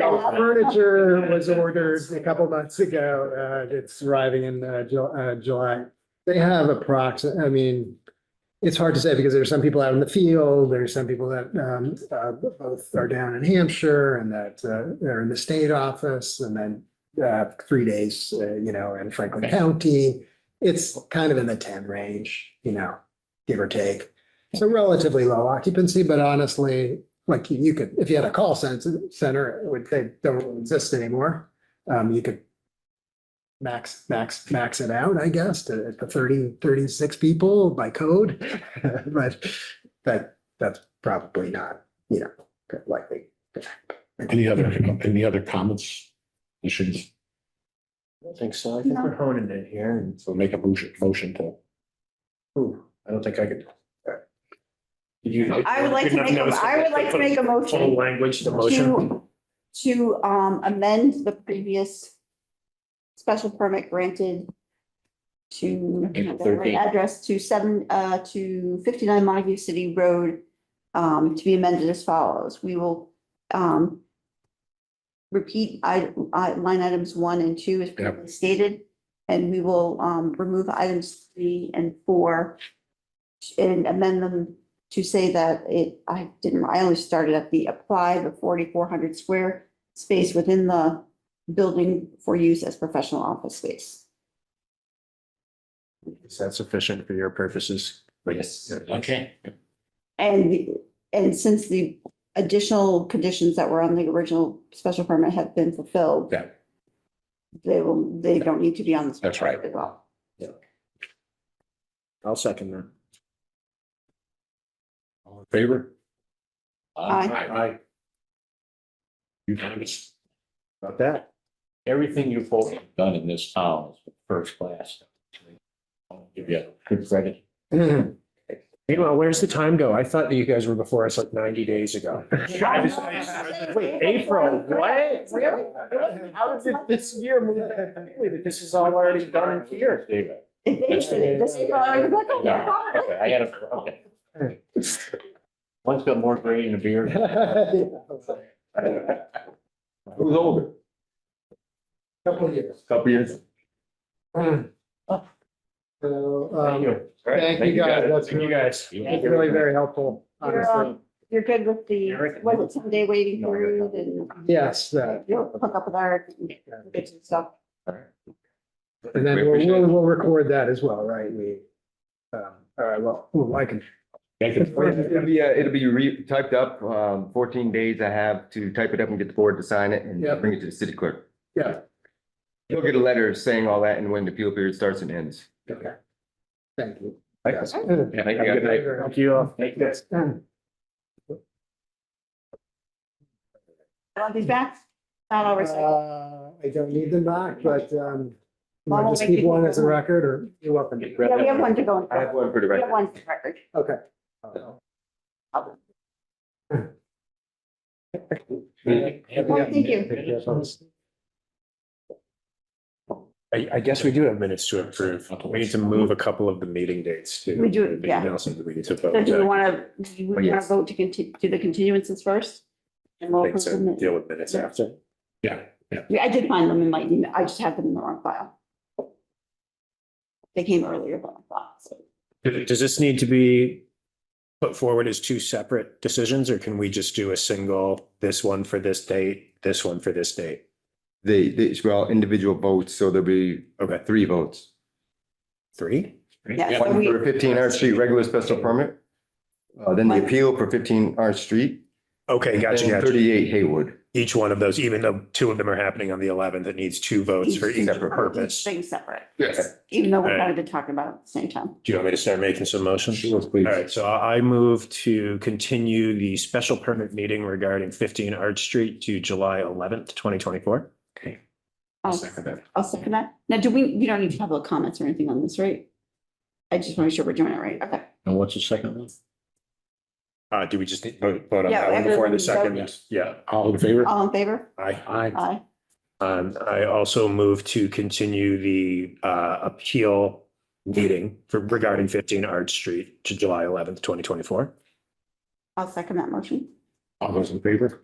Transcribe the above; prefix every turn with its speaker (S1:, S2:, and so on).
S1: Furniture was ordered a couple months ago. Uh, it's arriving in, uh, Ju- uh, July. They have approximate, I mean, it's hard to say because there's some people out in the field, there's some people that, um, uh, both are down in Hampshire and that, uh, they're in the state office and then, uh, three days, uh, you know, in Franklin County. It's kind of in the ten range, you know, give or take. So relatively low occupancy, but honestly, like you- you could, if you had a call cen- center, it would, they don't exist anymore. Um, you could max, max, max it out, I guess, to, to 30 36 people by code. But that, that's probably not, you know, likely.
S2: Any other, any other comments? We should
S3: I don't think so. I think we're honing it here and,
S2: so make a motion, motion to.
S3: ooh, I don't think I could. Did you?
S4: I would like to make, a- I would like to make a
S3: Full
S4: motion
S3: language, the motion.
S4: to, to um, amend the previous special permit granted to
S2: April
S4: the right
S2: 13.
S4: address to seven, uh, to fifty-nine Montague City Road, um, to be amended as follows. We will, um, repeat I, I, line items one and two as previously stated, and we will, um, remove items three and four and amend them to say that it, I didn't, I only started at the apply the forty-four hundred square space within the building for use as professional office space.
S3: Is that sufficient for your purposes? Yes.
S2: Okay.
S4: And, the- and since the additional conditions that were on the original special permit have been fulfilled,
S2: Yeah.
S4: they will, they don't need to be on this.
S2: That's right.
S4: as well.
S3: I'll second that.
S2: All in favor?
S4: Aye.
S2: Aye. Unanimous.
S3: About that.
S5: everything you've done in this town is first class. I'll Give you good credit.
S3: Meanwhile, where's the time go? I thought that you guys were before us like ninety days ago. Wait, April, what? Really? How did this year move that quickly that this is all already done and here?
S5: David.
S4: If they should, if they should, I would be like, oh, my
S5: Yeah,
S4: God.
S5: okay, I had a, okay. One's got more gray in the beard. Who's older?
S1: Couple of years.
S5: Couple years.
S1: So,
S5: Thank
S1: um,
S5: you. All right,
S1: thank you guys. That's
S3: Thank you
S1: really,
S3: guys.
S1: that's really very helpful,
S4: You're,
S1: honestly.
S4: um, You're good with the,
S5: Eric?
S4: was it someday waiting
S5: No,
S4: period and
S1: Yes, that,
S4: you'll hook up with Eric and get some stuff.
S1: and then
S2: We
S1: we'll,
S2: appreciate
S1: we'll,
S2: it.
S1: we'll record that as well, right? We, um, all right, well, ooh, I can,
S2: Thank you.
S6: Well, It'll be, uh, it'll be re, typed up, um, fourteen days I have to type it up and get the board to sign it and
S1: Yep.
S6: bring it to the city clerk.
S1: yeah,
S6: You'll get a letter saying all that and when the appeal period starts and ends.
S1: okay. Thank you.
S6: Thanks.
S1: Yes.
S2: Yeah,
S6: Thank
S2: have a good night.
S3: Thank you all.
S5: Thank you.
S4: Want these back? Not always.
S1: Uh, I don't need them back, but, um, you want
S4: Well, we'll
S1: to just
S4: make
S1: keep
S4: it-
S1: one as a record or you're welcome. to.
S4: Yeah, we have one to go. in.
S6: I have one for the
S4: We have
S6: record.
S4: one for the record.
S1: Okay.
S4: Well, thank
S1: you.
S3: I, I guess we do have minutes to approve. We need to move a couple of the meeting dates too.
S4: We do,
S3: The
S4: yeah.
S3: emails that we need to
S4: So
S3: vote.
S4: do we want to, do we want to
S6: yes.
S4: vote to continue, do the continuances first? And we'll
S3: Things
S4: approve them.
S3: and deal with minutes after.
S4: Yeah, I did find them in my email. I just had them in the wrong file. They came earlier than I thought, so.
S3: Does does this need to be put forward as two separate decisions or can we just do a single, this one for this date, this one for this date?
S6: They, they, we're all individual votes, so there'll be
S3: Okay,
S6: three votes.
S3: three?
S4: Yeah, so
S6: One
S4: we,
S6: for fifteen Arch Street, regular special permit.
S3: Oh,
S6: Uh, then the appeal for fifteen Arch Street.
S3: Okay, gotcha,
S6: and
S3: gotcha.
S6: Thirty-eight Haywood.
S3: Each one of those, even though two of them are happening on the eleventh, it needs two votes Oh, for each
S6: Separate.
S3: purpose. Do
S4: things separate,
S6: Yes.
S4: even though we're
S3: Alright.
S4: kind of been talking about it at the same time.
S3: you want me to start making some motions?
S6: please.
S3: All right, so I I move to continue the special permit meeting regarding fifteen Arch Street to July eleventh, twenty twenty-four.
S4: I'll, I'll second that. Now, do we, we don't need public comments or anything on this, right? I just want to make sure we're doing it right. Okay.
S5: And what's the second one?
S3: Uh, do we just need to vote vote on
S4: Yeah,
S3: that one before the
S4: everyone
S3: second? Yeah,
S2: All in favor?
S4: All in favor?
S3: aye.
S2: Aye.
S4: Aye.
S3: Um, I also move to continue the uh appeal meeting for regarding fifteen Arch Street to July eleventh, twenty twenty-four.
S4: I'll second that motion.
S5: All those in favor?